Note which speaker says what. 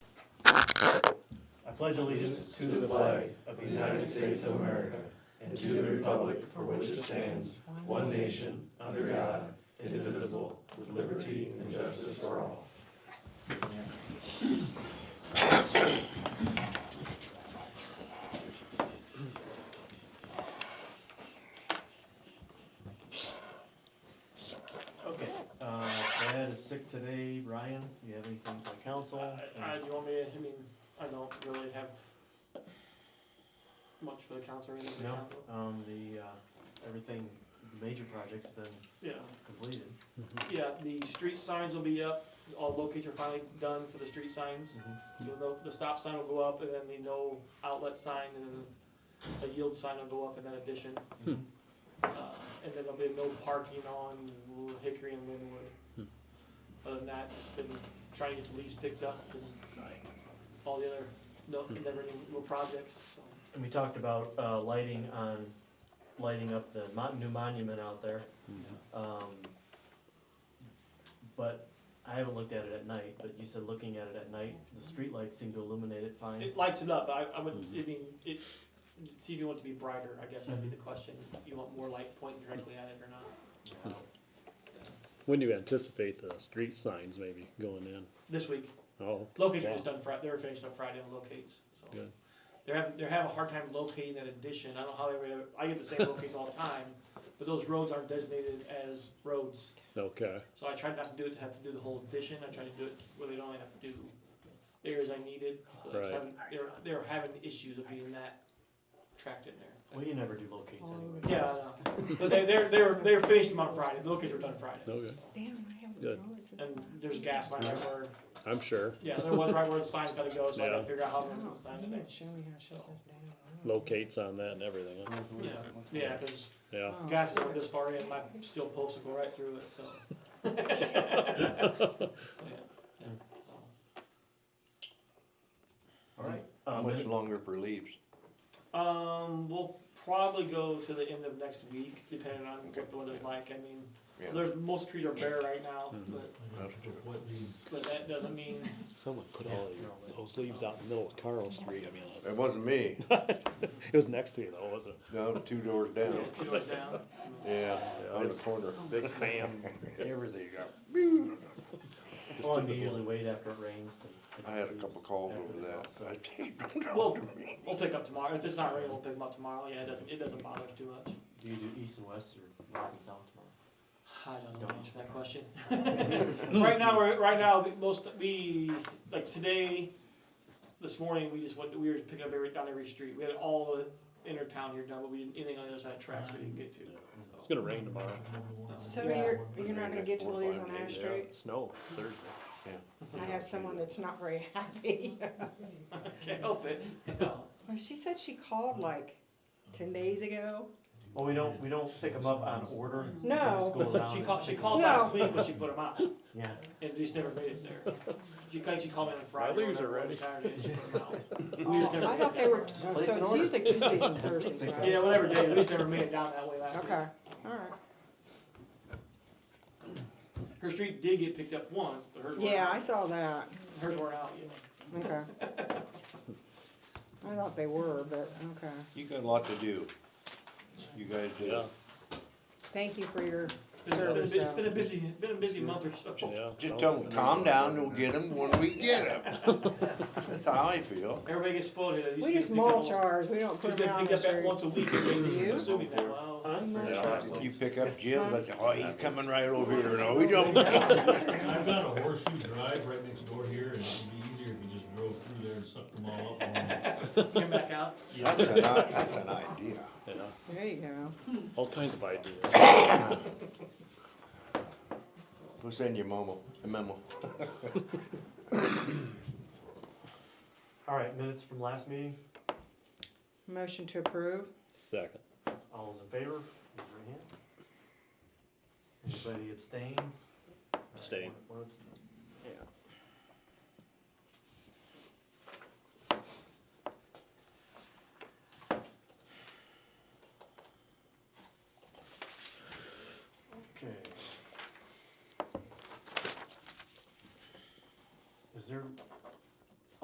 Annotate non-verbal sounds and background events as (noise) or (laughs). Speaker 1: pledge allegiance to the flag of the United States of America and to the republic for which it stands, one nation, under God, indivisible, with liberty and justice for all. Okay, uh, Brad is sick today. Ryan, do you have anything for council?
Speaker 2: I, I, uh, you want me to, I mean, I don't really have much for the council or anything for the
Speaker 1: No.
Speaker 2: council.
Speaker 1: Um, the, uh, everything, major project's been
Speaker 2: Yeah,
Speaker 1: completed.
Speaker 2: yeah, the street signs will be up, all locates are finally done for the street signs. So the, the stop sign will go up and then the no outlet sign and then the yield sign will go up in that addition.
Speaker 1: Mhm.
Speaker 2: Uh, and then there'll be no parking on Hickory and Linwood. Other than that, just been trying to get the lease picked up and all the other, no, never any little projects, so.
Speaker 1: And we talked about, uh, lighting on, lighting up the mon- new monument out there.
Speaker 3: Mm-hmm.
Speaker 1: Um, but I haven't looked at it at night, but you said looking at it at night, the streetlights seem to illuminate it fine.
Speaker 2: It lights it up, I, I would,
Speaker 3: Mm-hmm.
Speaker 2: I mean, it, see if you want it to be brighter, I guess that'd be the
Speaker 3: Mm-hmm.
Speaker 2: question, you want more light pointing directly at it or not?
Speaker 3: When do you anticipate the street signs maybe going in?
Speaker 2: This week,
Speaker 3: Oh,
Speaker 2: locates were
Speaker 3: Yeah.
Speaker 2: just done Fri- they were finished on Friday on locates, so.
Speaker 3: Good.
Speaker 2: They're having, they're having a hard time locating that addition, I don't know how they were, able- I get the same locates all the time, but those roads aren't designated as roads.
Speaker 3: okay.
Speaker 2: So I tried not to do it, to have to do the whole addition, I tried to do it where they'd only have to do areas I needed, so they
Speaker 3: Right.
Speaker 2: they're, they're having issues of getting that tracked in there.
Speaker 1: Well, you never do locates
Speaker 4: Um,
Speaker 1: anyway.
Speaker 2: Yeah, I know. but they, they're, they're, they're finished them on Friday, the lookers are done Friday.
Speaker 3: Okay.
Speaker 4: Damn, I haven't
Speaker 3: Good.
Speaker 4: noticed.
Speaker 2: And there's gas line right where,
Speaker 3: I'm sure.
Speaker 2: yeah, there was right where the sign's gotta go, so I gotta
Speaker 3: Yeah.
Speaker 2: figure out how
Speaker 4: Oh,
Speaker 2: I'm gonna sign
Speaker 4: you
Speaker 2: it
Speaker 4: didn't
Speaker 2: next.
Speaker 4: show me how to shut this down.
Speaker 3: Locates on that and everything. huh?
Speaker 2: Yeah, yeah, cause
Speaker 3: Yeah.
Speaker 4: Oh.
Speaker 2: gas is only this far in, my steel posts will go right through it, so. So, yeah, yeah, so.
Speaker 1: Alright.
Speaker 5: How
Speaker 1: Um,
Speaker 5: much longer for leaves?
Speaker 2: Um, we'll probably go to the end of next week, depending on
Speaker 5: Okay.
Speaker 2: what the weather's like. I mean,
Speaker 5: Yeah.
Speaker 2: there's, most trees are bare right now, but,
Speaker 1: what leaves?
Speaker 2: but that doesn't mean,
Speaker 3: Someone put all the- those leaves out in the middle of Carl Street. I mean,
Speaker 5: It wasn't me,
Speaker 3: it was next to you though, wasn't
Speaker 5: down two doors
Speaker 2: yeah,
Speaker 5: down.
Speaker 2: it goes down.
Speaker 5: Yeah,
Speaker 3: Yeah,
Speaker 5: on the
Speaker 1: (laughs)
Speaker 3: it's-
Speaker 5: corner.
Speaker 3: it? Big fan.
Speaker 5: Everything up.
Speaker 3: Just
Speaker 1: Well,
Speaker 3: to
Speaker 1: and you
Speaker 3: the
Speaker 1: usually
Speaker 3: blue.
Speaker 1: wait after it rains to.
Speaker 5: I had a couple calls
Speaker 1: After
Speaker 5: over
Speaker 1: the
Speaker 5: that.
Speaker 1: calls, so-
Speaker 5: I think, don't (laughs)
Speaker 2: Well-
Speaker 5: talk to me.
Speaker 2: We'll pick up tomorrow. If it's not raining, we'll pick them up tomorrow. Yeah, it doesn't, it doesn't bother us too much.
Speaker 1: Do you do east and west or north and south tomorrow?
Speaker 2: I don't know
Speaker 1: Don't.
Speaker 2: to answer that question. Right now, we're, right now, the most, we, like today, this morning, we just went, we were picking up every, down every street. We had all the inner town here done, but we didn't, anything on the other side of tracks we didn't get to.
Speaker 3: It's gonna rain tomorrow.
Speaker 4: So
Speaker 2: Yeah.
Speaker 4: you're, you're not gonna get to
Speaker 5: Four or
Speaker 4: Lee's
Speaker 5: five
Speaker 4: on Ash
Speaker 5: days, yeah.
Speaker 4: Street?
Speaker 3: Snow Thursday.
Speaker 4: I have someone that's not very (laughs) happy.
Speaker 2: Can't help it. No.
Speaker 4: Well, she said she called like ten
Speaker 2: (laughs)
Speaker 4: days ago.
Speaker 1: Well, we don't, we don't pick them up on order. It just
Speaker 4: No,
Speaker 1: goes out
Speaker 2: (laughs) She
Speaker 1: and-
Speaker 2: called, she called
Speaker 4: No.
Speaker 2: last week when she put them out,
Speaker 1: Yeah.
Speaker 2: and just never made it there. She, she called me on Friday.
Speaker 3: leaves are
Speaker 2: whatever,
Speaker 3: ready.
Speaker 2: Saturday, and she put 'em out. We just
Speaker 4: Oh,
Speaker 2: never
Speaker 4: I
Speaker 2: made
Speaker 4: thought
Speaker 2: it
Speaker 4: they
Speaker 2: that
Speaker 4: were,
Speaker 2: way.
Speaker 4: so
Speaker 1: Place an
Speaker 4: it's
Speaker 1: order.
Speaker 4: usually
Speaker 2: (laughs)
Speaker 4: Tuesdays and Thursdays, right?
Speaker 2: Yeah, whatever day, we just never made it down that way last week.
Speaker 4: Okay, alright.
Speaker 2: Her street did get picked up once, but hers weren't,
Speaker 4: Yeah, I
Speaker 2: out.
Speaker 4: saw that,
Speaker 2: hers weren't out yet.
Speaker 4: okay. I thought they were, but, okay.
Speaker 5: You got a lot to do. You guys do.
Speaker 3: Yeah,
Speaker 4: Thank you for your
Speaker 2: It's been a-
Speaker 4: service.
Speaker 2: It's been
Speaker 4: though.
Speaker 2: a busy, it's been a busy month or so.
Speaker 3: yeah.
Speaker 5: Just
Speaker 3: sounds
Speaker 5: tell
Speaker 3: like
Speaker 5: them,
Speaker 3: it.
Speaker 5: calm down, we'll get them when we get them. That's how I feel.
Speaker 2: Everybody gets spoiled here. They used
Speaker 4: We
Speaker 2: to
Speaker 4: just
Speaker 2: pick up
Speaker 4: mulch
Speaker 2: almost-
Speaker 4: ours, we don't
Speaker 2: They
Speaker 4: put them out on
Speaker 2: pick
Speaker 4: the
Speaker 2: up at
Speaker 4: street.
Speaker 2: once a week, and they
Speaker 4: You?
Speaker 2: just assuming that, well,
Speaker 1: I'm not
Speaker 3: Yeah.
Speaker 1: sure.
Speaker 5: If you pick up Jim, I say, oh, he's coming right over here. No, he don't.
Speaker 6: I've got a horseshoe drive right next door here, and it'd be easier if you just drove through there and sucked them all up. on-
Speaker 2: come back out.
Speaker 5: That's an, i- that's an idea.
Speaker 3: Yeah,
Speaker 4: There you go.
Speaker 3: all kinds of ideas.
Speaker 5: (coughs) We'll send you a memo, a memo.
Speaker 1: All right, minutes from last meeting.
Speaker 4: Motion to approve?
Speaker 3: Second.
Speaker 1: All those in favor, raise your hand. Anybody abstain? All right,
Speaker 3: Abstain.
Speaker 1: one- one abstain.
Speaker 4: Yeah.
Speaker 1: Okay. Is there